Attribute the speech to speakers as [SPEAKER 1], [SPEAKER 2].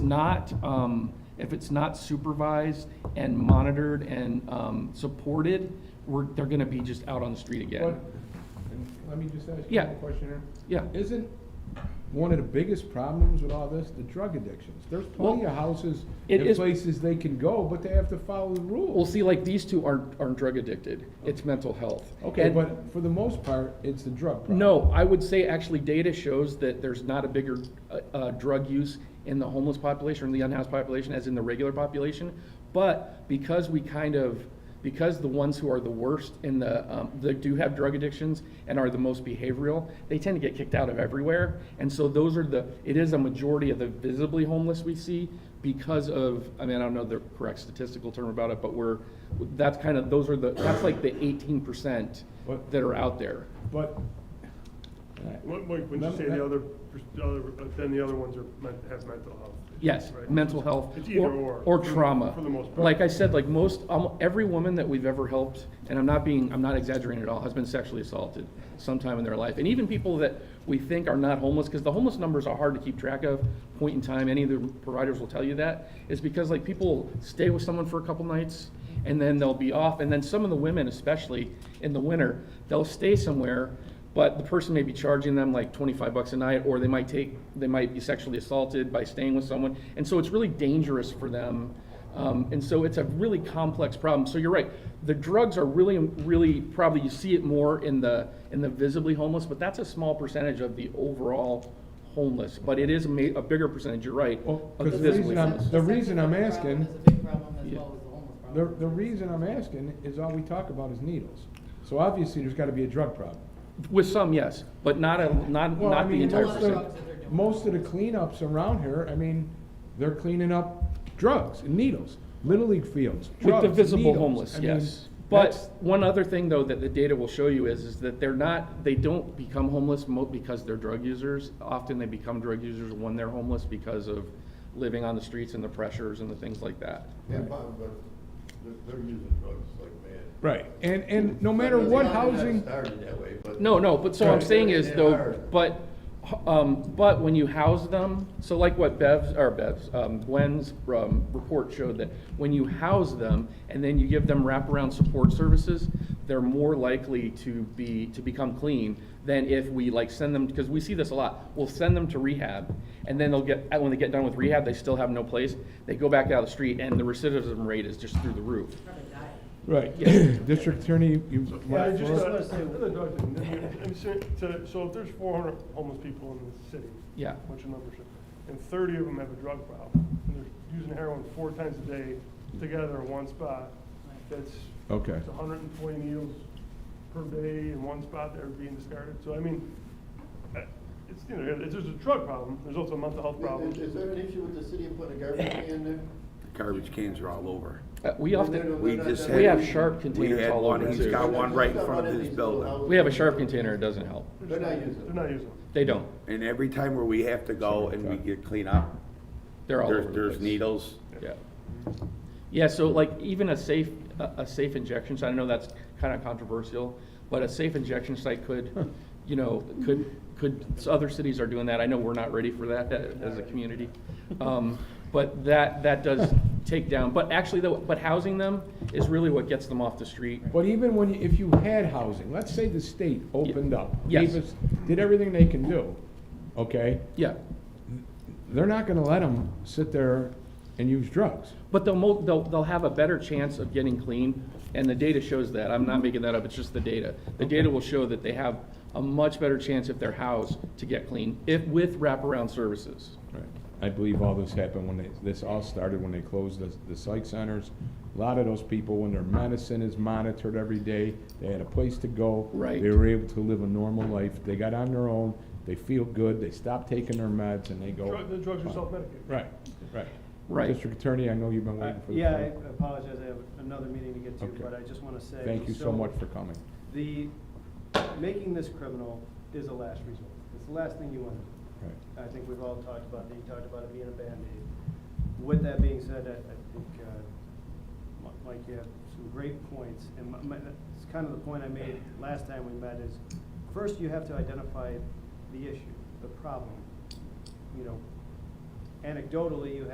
[SPEAKER 1] not, um, if it's not supervised and monitored and, um, supported, we're, they're gonna be just out on the street again.
[SPEAKER 2] But, and let me just ask you
[SPEAKER 1] Yeah.
[SPEAKER 2] a question here.
[SPEAKER 1] Yeah.
[SPEAKER 2] Isn't one of the biggest problems with all this the drug addictions? There's plenty
[SPEAKER 1] Well,
[SPEAKER 2] of houses
[SPEAKER 1] it
[SPEAKER 2] and
[SPEAKER 1] is-
[SPEAKER 2] places they can go, but they have to follow the
[SPEAKER 1] Well,
[SPEAKER 2] rules.
[SPEAKER 1] see, like, these two aren't, aren't drug addicted, it's mental health.
[SPEAKER 2] Okay,
[SPEAKER 1] And-
[SPEAKER 2] but for the most part, it's the drug problem.
[SPEAKER 1] No, I would say actually data shows that there's not a bigger uh, uh, drug use in the homeless population or in the unhoused population as in the regular population. But because we kind of, because the ones who are the worst in the, um, that do have drug addictions and are the most behavioral, they tend to get kicked out of everywhere. And so those are the, it is a majority of the visibly homeless we see because of, I mean, I don't know the correct statistical term about it, but we're, that's kind of, those are the, that's like the eighteen percent
[SPEAKER 2] But-
[SPEAKER 1] that are out there.
[SPEAKER 2] But,
[SPEAKER 3] What, Mike, when you
[SPEAKER 2] Remember
[SPEAKER 3] say the
[SPEAKER 2] that-
[SPEAKER 3] other, pers- the other, but then the other ones are, men- have mental health.
[SPEAKER 1] Yes,
[SPEAKER 3] right?
[SPEAKER 1] mental health.
[SPEAKER 3] It's either or.
[SPEAKER 1] Or
[SPEAKER 3] for-
[SPEAKER 1] trauma.
[SPEAKER 3] For the most part.
[SPEAKER 1] Like I said, like most, almo- every woman that we've ever helped, and I'm not being, I'm not exaggerating at all, has been sexually assaulted sometime in their life. And even people that we think are not homeless, because the homeless numbers are hard to keep track of, point in time, any of the providers will tell you that, is because like people stay with someone for a couple nights, and then they'll be off. And then some of the women, especially in the winter, they'll stay somewhere, but the person may be charging them like twenty-five bucks a night, or they might take, they might be sexually assaulted by staying with someone. And so it's really dangerous for them. Um, and so it's a really complex problem. So you're right. The drugs are really, really probably you see it more in the in the visibly homeless, but that's a small percentage of the overall homeless. But it is a, ma- a bigger percentage. You're right.
[SPEAKER 2] well,
[SPEAKER 1] of
[SPEAKER 2] 'cause the
[SPEAKER 1] visibly
[SPEAKER 2] reason I'm,
[SPEAKER 1] homeless.
[SPEAKER 2] the reason I'm
[SPEAKER 4] Sexual
[SPEAKER 2] asking,
[SPEAKER 4] problem is a big problem as
[SPEAKER 1] Yeah.
[SPEAKER 4] well as the homeless
[SPEAKER 2] the,
[SPEAKER 4] problem.
[SPEAKER 2] the reason I'm asking is all we talk about is needles. So obviously, there's gotta be a drug problem.
[SPEAKER 1] with some, yes, but not a not
[SPEAKER 2] Well,
[SPEAKER 1] not
[SPEAKER 2] I mean,
[SPEAKER 1] the entire
[SPEAKER 2] most of
[SPEAKER 4] the-
[SPEAKER 1] percentage.
[SPEAKER 2] the- Most of the cleanups around here, I mean, they're cleaning up drugs and needles, Little League fields,
[SPEAKER 1] With
[SPEAKER 2] drugs,
[SPEAKER 1] the visible
[SPEAKER 2] needles.
[SPEAKER 1] homeless,
[SPEAKER 2] I mean,
[SPEAKER 1] yes.
[SPEAKER 2] that's-
[SPEAKER 1] But one other thing, though, that the data will show you is, is that they're not, they don't become homeless mo- because they're drug users. Often they become drug users when they're homeless because of living on the streets and the pressures and the things like that.
[SPEAKER 5] Yeah, but, but they're, they're using drugs like mad.
[SPEAKER 2] Right, and, and no
[SPEAKER 5] I
[SPEAKER 2] matter
[SPEAKER 5] mean,
[SPEAKER 2] what
[SPEAKER 5] it's not
[SPEAKER 2] housing,
[SPEAKER 5] Started that way, but.
[SPEAKER 1] No, no, but so I'm
[SPEAKER 2] Right.
[SPEAKER 1] saying is
[SPEAKER 5] They
[SPEAKER 1] though,
[SPEAKER 5] are.
[SPEAKER 1] but, um, but when you house them, so like what Bev's, or Bev's, um, Gwen's, um, report showed that when you house them and then you give them wraparound support services, they're more likely to be, to become clean than if we like send them, because we see this a lot, we'll send them to rehab and then they'll get, and when they get done with rehab, they still have no place, they go back out of the street and the recidivism rate is just through the roof.
[SPEAKER 4] Probably died.
[SPEAKER 2] right, district attorney, you.
[SPEAKER 3] Yeah, I
[SPEAKER 2] want
[SPEAKER 3] just,
[SPEAKER 2] to-
[SPEAKER 3] uh, another dog thing, I mean, so- so- so if there's four hundred homeless people in the city.
[SPEAKER 1] Yeah.
[SPEAKER 3] Which numbers, and thirty of them have a drug problem, and they're using heroin four times a day together in one spot, that's.
[SPEAKER 2] Okay.
[SPEAKER 3] It's hundred and twenty needles per day in one spot that are being discarded, so I mean, uh, it's, you know, there's a drug problem, there's also a mental health problem.
[SPEAKER 5] Is, is there an issue with the city of putting a garbage can in there?
[SPEAKER 6] Garbage cans are all over.
[SPEAKER 1] Uh, we
[SPEAKER 5] No, no, no,
[SPEAKER 1] often.
[SPEAKER 5] no,
[SPEAKER 6] We
[SPEAKER 5] no,
[SPEAKER 6] just
[SPEAKER 5] no.
[SPEAKER 6] had.
[SPEAKER 1] We have sharp containers
[SPEAKER 6] we had
[SPEAKER 1] all
[SPEAKER 6] one.
[SPEAKER 1] over,
[SPEAKER 6] He's
[SPEAKER 1] too.
[SPEAKER 6] got one right in front of his building.
[SPEAKER 1] We have a sharp container, it doesn't help.
[SPEAKER 5] They're not using
[SPEAKER 3] They're
[SPEAKER 5] it.
[SPEAKER 3] not using them.
[SPEAKER 1] They don't.
[SPEAKER 6] And every time where we have to go and we get clean up,
[SPEAKER 1] They're all over
[SPEAKER 6] there's,
[SPEAKER 1] the
[SPEAKER 6] there's
[SPEAKER 1] place.
[SPEAKER 6] needles.
[SPEAKER 1] Yeah. Yeah, so like even a safe, a, a safe injection site, I know that's kind of controversial, but a safe injection site could, you know, could, could, so other cities are doing that. I know we're not ready for that a- as a community. Um, but that, that does take down, but actually though, but housing them is really what gets them off the street.
[SPEAKER 2] But even when, you- if you had housing, let's say the state opened up.
[SPEAKER 1] Yes.
[SPEAKER 2] gave us- Did everything they can do, okay?
[SPEAKER 1] Yeah.
[SPEAKER 2] They're not gonna let them sit there and use drugs.
[SPEAKER 1] But they'll, mo- they'll, they'll have a better chance of getting clean, and the data shows that. I'm not making that up, it's just the data. The data will show that they have a much better chance if they're housed to get clean, if, with wraparound services.
[SPEAKER 2] Right. I believe all this happened when they, this all started when they closed the, the psych centers. A lot of those people, when their medicine is monitored every day, they had a place to go.
[SPEAKER 1] Right.
[SPEAKER 2] They were able to live a normal life. They got on their own, they feel good, they stop taking their meds and they go.
[SPEAKER 3] Drug- The drugs are self-medicated.
[SPEAKER 2] Right, right.
[SPEAKER 1] Right.
[SPEAKER 2] District Attorney, I know you've been waiting for the.
[SPEAKER 7] Yeah, I
[SPEAKER 2] floor.
[SPEAKER 7] apologize, I have another meeting to get
[SPEAKER 2] Okay.
[SPEAKER 7] to, but I just want to say.
[SPEAKER 2] Thank you so much for coming.
[SPEAKER 7] The, making this criminal is a last resort. It's the last thing you want to do.
[SPEAKER 2] Right.
[SPEAKER 7] I think we've all talked about it, you talked about it being a Band-Aid. With that being said, I, I think, uh, Mi- Mike, you have some great points, and my, my, it's kind of the point I made last time we met is, first you have to identify the issue, the problem. You know, anecdotally, you